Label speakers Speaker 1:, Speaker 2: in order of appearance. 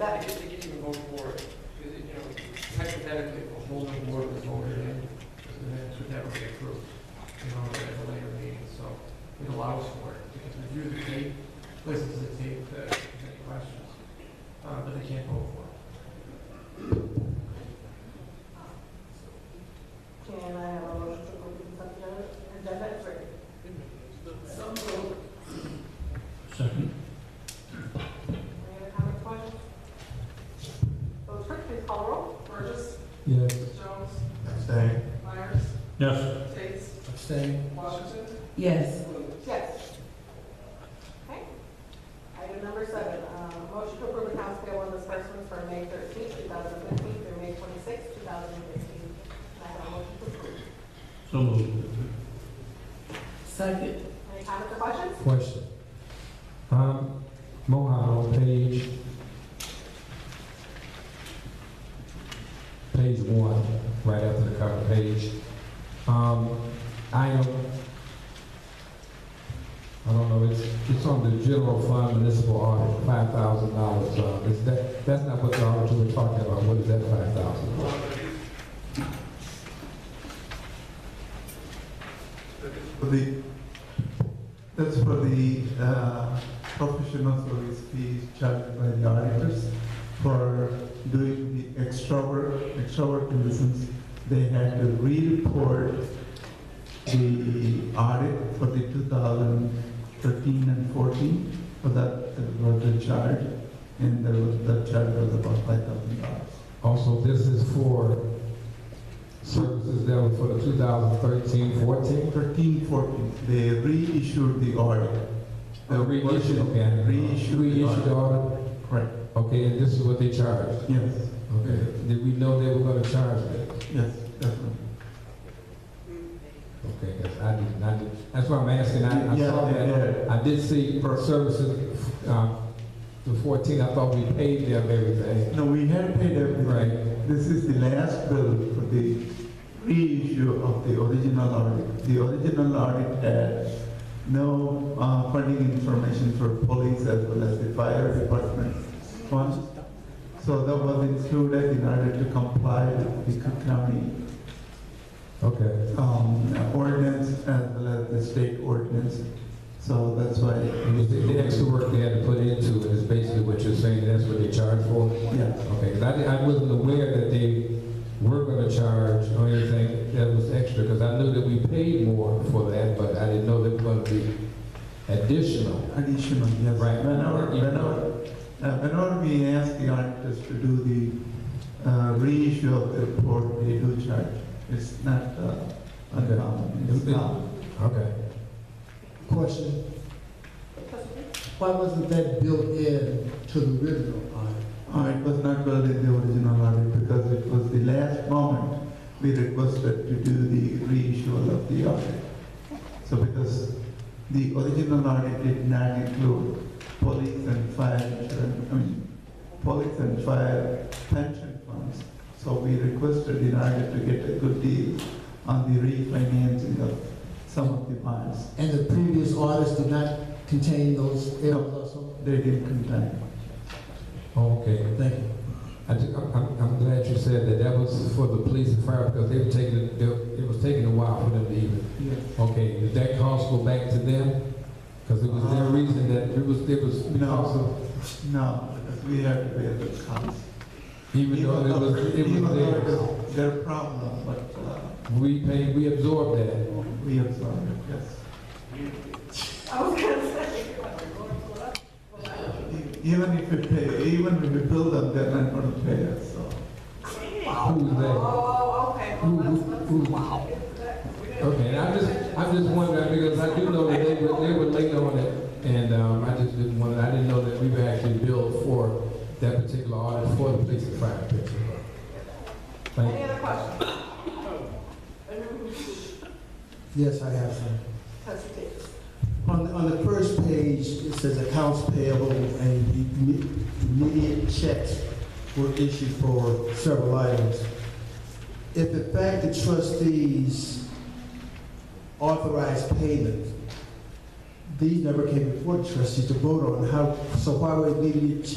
Speaker 1: I think they give you a vote for it, because, you know, hypothetically, if a whole new board was voted in, the minutes would never be approved, you know, at a later meeting, so it allows for it, because review the tape, listen to the tape, uh, if there's any questions, uh, but they can't vote for it.
Speaker 2: Can I have a motion to approve the consent agenda as written? So moved.
Speaker 3: Second.
Speaker 2: Any other comments, questions? Vote clerk, please call roll.
Speaker 4: Burgess,
Speaker 3: Yes.
Speaker 4: Jones,
Speaker 5: Abstain.
Speaker 4: Myers,
Speaker 3: Yes.
Speaker 4: Tate,
Speaker 5: Abstain.
Speaker 4: Washington,
Speaker 6: yes,
Speaker 4: Blue.
Speaker 2: Yes. Okay. Item number seven, um, motion to approve accounts payable and disbursements for May thirteenth, two thousand fifteen through May twenty-sixth, two thousand fifteen. I have a motion to approve.
Speaker 3: So moved.
Speaker 6: second,
Speaker 2: Any comments or questions?
Speaker 5: Question. Um, Mohawk, on page, page one, right after the cover page. Um, I am, I don't know, it's, it's on the general fund municipal audit, five thousand dollars. Um, is that, that's not what the auditor was talking about. What is that five thousand?
Speaker 7: For the, that's for the uh, professional service fees charged by the auditors for doing the extra work, extra work in the sense they had to re-report the audit for the 2013 and 14, for that, there was the charge, and there was, that charge was about $5,000.
Speaker 5: Also, this is for services that were for the 2013, 14?
Speaker 7: 13, 14, they reissued the audit.
Speaker 5: The reissue, Oh, okay.
Speaker 7: Reissued.
Speaker 5: Reissue the audit,
Speaker 7: Correct,
Speaker 5: okay, and this is what they charged?
Speaker 7: yes,
Speaker 5: Okay, did we know they were gonna charge that?
Speaker 7: yes, definitely.
Speaker 5: Okay, 'cause I did, I did, that's why I'm asking, I, I
Speaker 7: Yeah,
Speaker 5: saw that.
Speaker 7: yeah.
Speaker 5: I did see per services, um, the 14, I thought we paid them everything.
Speaker 7: No, we had paid everything.
Speaker 5: Right.
Speaker 7: This is the last bill for the reissue of the original audit. The original audit had no uh, funding information for police as well as the fire department funds. So that was included in order to comply with the Cook County
Speaker 5: Okay,
Speaker 7: um, ordinance as well as the state ordinance. So that's why.
Speaker 5: and was the, the extra work they had to put into it is basically what you're saying, that's what they charged for?
Speaker 7: Yeah,
Speaker 5: Okay, 'cause I, di- I wasn't aware that they were gonna charge or anything that was extra, because I knew that we paid more for that, but I didn't know they were gonna be additional.
Speaker 7: additional, yes.
Speaker 5: Right.
Speaker 7: Whenever,
Speaker 5: You-
Speaker 7: whenever, uh, whenever we ask the auditors to do the uh, reissue of the report, they do charge. It's not uh, uncommon. It's
Speaker 5: Okay.
Speaker 7: not.
Speaker 5: Okay.
Speaker 8: Question,
Speaker 2: Trustee?
Speaker 8: why wasn't that built in to the original audit?
Speaker 7: Uh, It was not built in the original audit because it was the last moment we requested to do the reissue of the audit. So because the original audit did not include police and fire insurance, I mean, police and fire pension funds. So we requested in order to get a good deal on the refinancing of some of the bonds.
Speaker 8: And the previous audits did not contain those errors also?
Speaker 7: They didn't contain.
Speaker 5: Okay,
Speaker 8: Thank you.
Speaker 5: I ju- I'm, I'm- I'm glad you said that that was for the police and fire, because they were taking, they- it was taking a while for them to even,
Speaker 7: Yes.
Speaker 5: okay, did that cost go back to them? Because it was their
Speaker 7: Uh,
Speaker 5: reason that, it was, it was because of,
Speaker 7: No, no, because we had to bear the cost.
Speaker 5: even though it was, it
Speaker 7: Even
Speaker 5: was
Speaker 7: though it
Speaker 5: theirs.
Speaker 7: was their problem, but uh,
Speaker 5: We paid, we absorbed that.
Speaker 7: we absorb it, yes.
Speaker 2: I was gonna say.
Speaker 7: E- Even if we pay, even if we bill them, they're not going to pay us, so.
Speaker 5: Who's
Speaker 2: Oh,
Speaker 5: that?
Speaker 2: okay,
Speaker 5: Who,
Speaker 2: well,
Speaker 5: who,
Speaker 2: let's, let's.
Speaker 5: who? Wow. Okay, and I'm just, I'm just wondering, because I do know that they were, they were late on it, and, um, I just didn't want, I didn't know that we were actually billed for that particular audit for the police and fire picture. Thank
Speaker 2: Any
Speaker 5: you.
Speaker 2: other questions?
Speaker 8: Yes, I have some.
Speaker 2: Trustee Davis?
Speaker 8: On, on the first page, it says accounts payable and imme- immediate checks were issued for several items. If in fact the trustees authorized payment, these never came before the trustees to vote on, how, so why were immediate checks